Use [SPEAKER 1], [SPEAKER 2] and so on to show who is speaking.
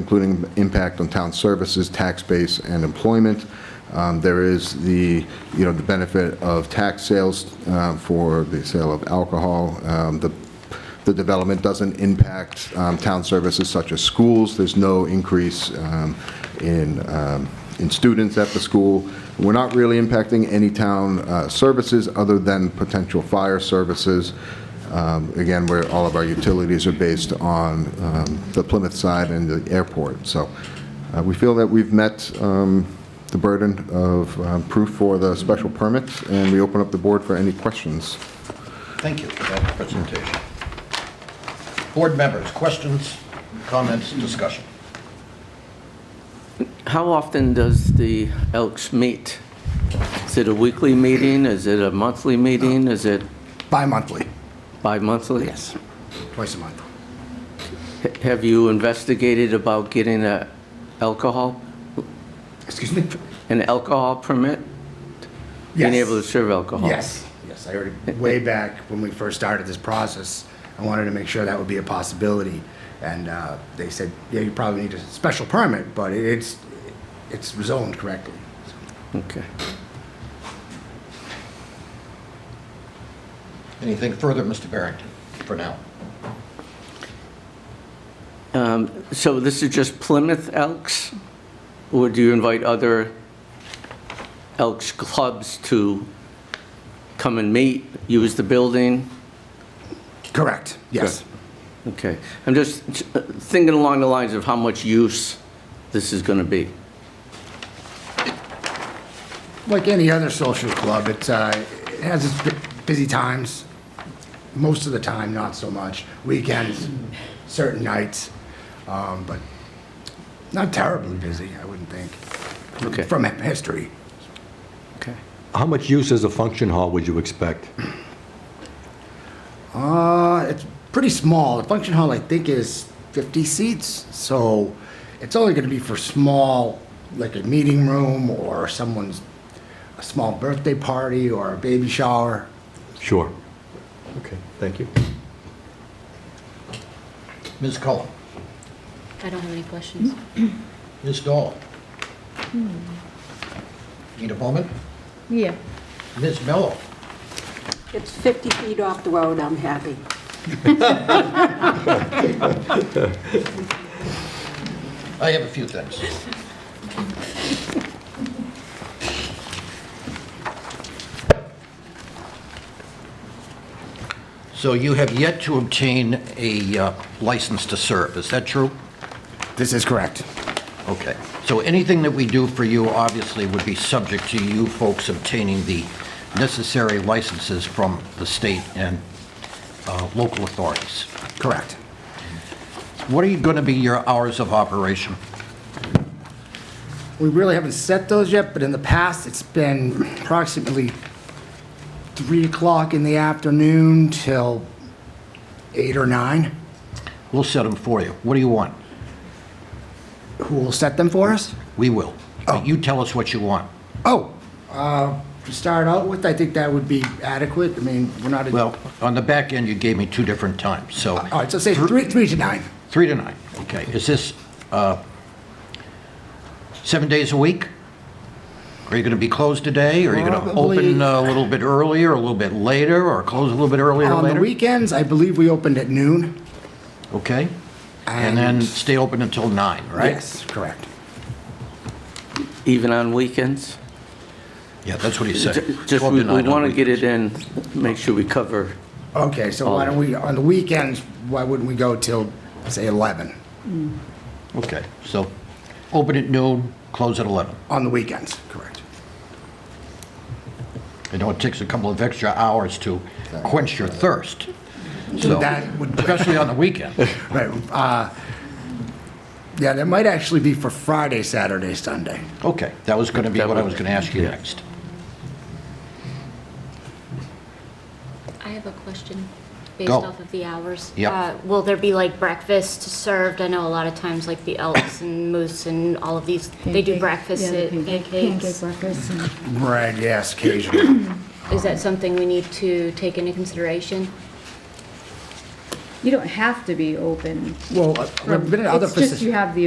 [SPEAKER 1] including impact on town services, tax base, and employment. Um, There is the, you know, the benefit of tax sales uh, for the sale of alcohol. Um, The the development doesn't impact um, town services such as schools. There's no increase um, in, um, in students at the school. We're not really impacting any town uh, services other than potential fire services. Um, Again, where all of our utilities are based on um, the Plymouth side and the airport. So uh, we feel that we've met um, the burden of um, proof for the special permit, and we open up the board for any questions.
[SPEAKER 2] Thank you for that presentation. Board members, questions, comments, discussion?
[SPEAKER 3] How often does the Elks meet? Is it a weekly meeting? Is it a monthly meeting? Is it
[SPEAKER 4] Bi-monthly,
[SPEAKER 3] bi-monthly?
[SPEAKER 4] yes, twice a month.
[SPEAKER 3] H- Have you investigated about getting a alcohol,
[SPEAKER 4] Excuse me?
[SPEAKER 3] an alcohol permit? Being
[SPEAKER 4] Yes.
[SPEAKER 3] able to serve alcohol?
[SPEAKER 4] Yes, yes, I heard it way back when we first started this process. I wanted to make sure that would be a possibility, and uh, they said, yeah, you probably need a special permit, but it's, it's zoned correctly.
[SPEAKER 3] Okay.
[SPEAKER 2] Anything further, Mr. Barrington, for now?
[SPEAKER 3] So this is just Plymouth Elks? Or do you invite other Elks clubs to come and meet, use the building?
[SPEAKER 4] Correct, yes.
[SPEAKER 3] Okay, I'm just uh, thinking along the lines of how much use this is going to be.
[SPEAKER 4] Like any other social club, it, uh, it has its bu- busy times. Most of the time, not so much. Weekends, certain nights, um, but not terribly busy, I wouldn't think.
[SPEAKER 3] Okay.
[SPEAKER 4] From history.
[SPEAKER 3] Okay.
[SPEAKER 5] How much use as a function hall would you expect?
[SPEAKER 4] Uh, it's pretty small. The function hall, I think, is 50 seats, so it's only going to be for small, like a meeting room or someone's, a small birthday party or a baby shower.
[SPEAKER 5] Sure. Okay, thank you.
[SPEAKER 2] Ms. Cullen,
[SPEAKER 6] I don't have any questions.
[SPEAKER 7] Hmm?
[SPEAKER 2] Ms. Dahl? Need a moment?
[SPEAKER 6] Yeah.
[SPEAKER 2] Ms. Mello?
[SPEAKER 8] It's 50 feet off the road, I'm happy.
[SPEAKER 2] I have a few things. So you have yet to obtain a uh, license to serve, is that true?
[SPEAKER 4] This is correct.
[SPEAKER 2] Okay, so anything that we do for you obviously would be subject to you folks obtaining the necessary licenses from the state and uh, local authorities.
[SPEAKER 4] Correct.
[SPEAKER 2] What are you going to be your hours of operation?
[SPEAKER 4] We really haven't set those yet, but in the past, it's been approximately 3 o'clock in the afternoon till 8 or 9.
[SPEAKER 2] We'll set them for you. What do you want?
[SPEAKER 4] Who will set them for us?
[SPEAKER 2] We will. But you tell us what you want.
[SPEAKER 4] Oh, uh, to start out with, I think that would be adequate. I mean, we're not, a-
[SPEAKER 2] Well, on the back end, you gave me two different times, so
[SPEAKER 4] all right, so say 3 three to 9.
[SPEAKER 2] three to nine. Okay, is this uh, seven days a week? Are you going to be closed today? Are you going to open
[SPEAKER 4] Probably-
[SPEAKER 2] uh, a little bit earlier, a little bit later, or close a little bit earlier or
[SPEAKER 4] On the
[SPEAKER 2] later?
[SPEAKER 4] weekends, I believe we opened at noon.
[SPEAKER 2] Okay? And then
[SPEAKER 4] And-
[SPEAKER 2] stay open until nine, right?
[SPEAKER 4] Yes, correct.
[SPEAKER 3] Even on weekends?
[SPEAKER 2] Yeah, that's what he said.
[SPEAKER 3] Ju- Just,
[SPEAKER 2] 12
[SPEAKER 3] we
[SPEAKER 2] to 9 on
[SPEAKER 3] want to get
[SPEAKER 2] weekends.
[SPEAKER 3] it in, make sure we cover,
[SPEAKER 4] Okay, so why
[SPEAKER 2] Oh.
[SPEAKER 4] don't we, on the weekends, why wouldn't we go till, say, 11
[SPEAKER 2] Okay, so open at noon, close at 11.
[SPEAKER 4] on the weekends? Correct.
[SPEAKER 2] I know it takes a couple of extra hours to quench your thirst. So,
[SPEAKER 4] So that would
[SPEAKER 2] especially on the weekend.
[SPEAKER 4] Right. uh, Yeah, that might actually be for Friday, Saturday, Sunday.
[SPEAKER 2] Okay, that was going to be what I was going to ask you next.
[SPEAKER 6] I have a question based
[SPEAKER 2] Go.
[SPEAKER 6] off of the hours.
[SPEAKER 2] Yep.
[SPEAKER 6] Uh, Will there be like breakfast served? I know a lot of times like the Elks and Moose and all of these, they do
[SPEAKER 7] Pancake- yeah,
[SPEAKER 6] breakfast
[SPEAKER 7] the
[SPEAKER 6] at
[SPEAKER 7] pancake- Pancake
[SPEAKER 6] pancakes.
[SPEAKER 7] breakfast. and-
[SPEAKER 4] Right, yes, occasionally.
[SPEAKER 6] Is that something we need to take into consideration?
[SPEAKER 7] You don't have to be open.
[SPEAKER 4] Well, uh, I've been in other
[SPEAKER 7] It's just
[SPEAKER 4] facilities.
[SPEAKER 7] you have the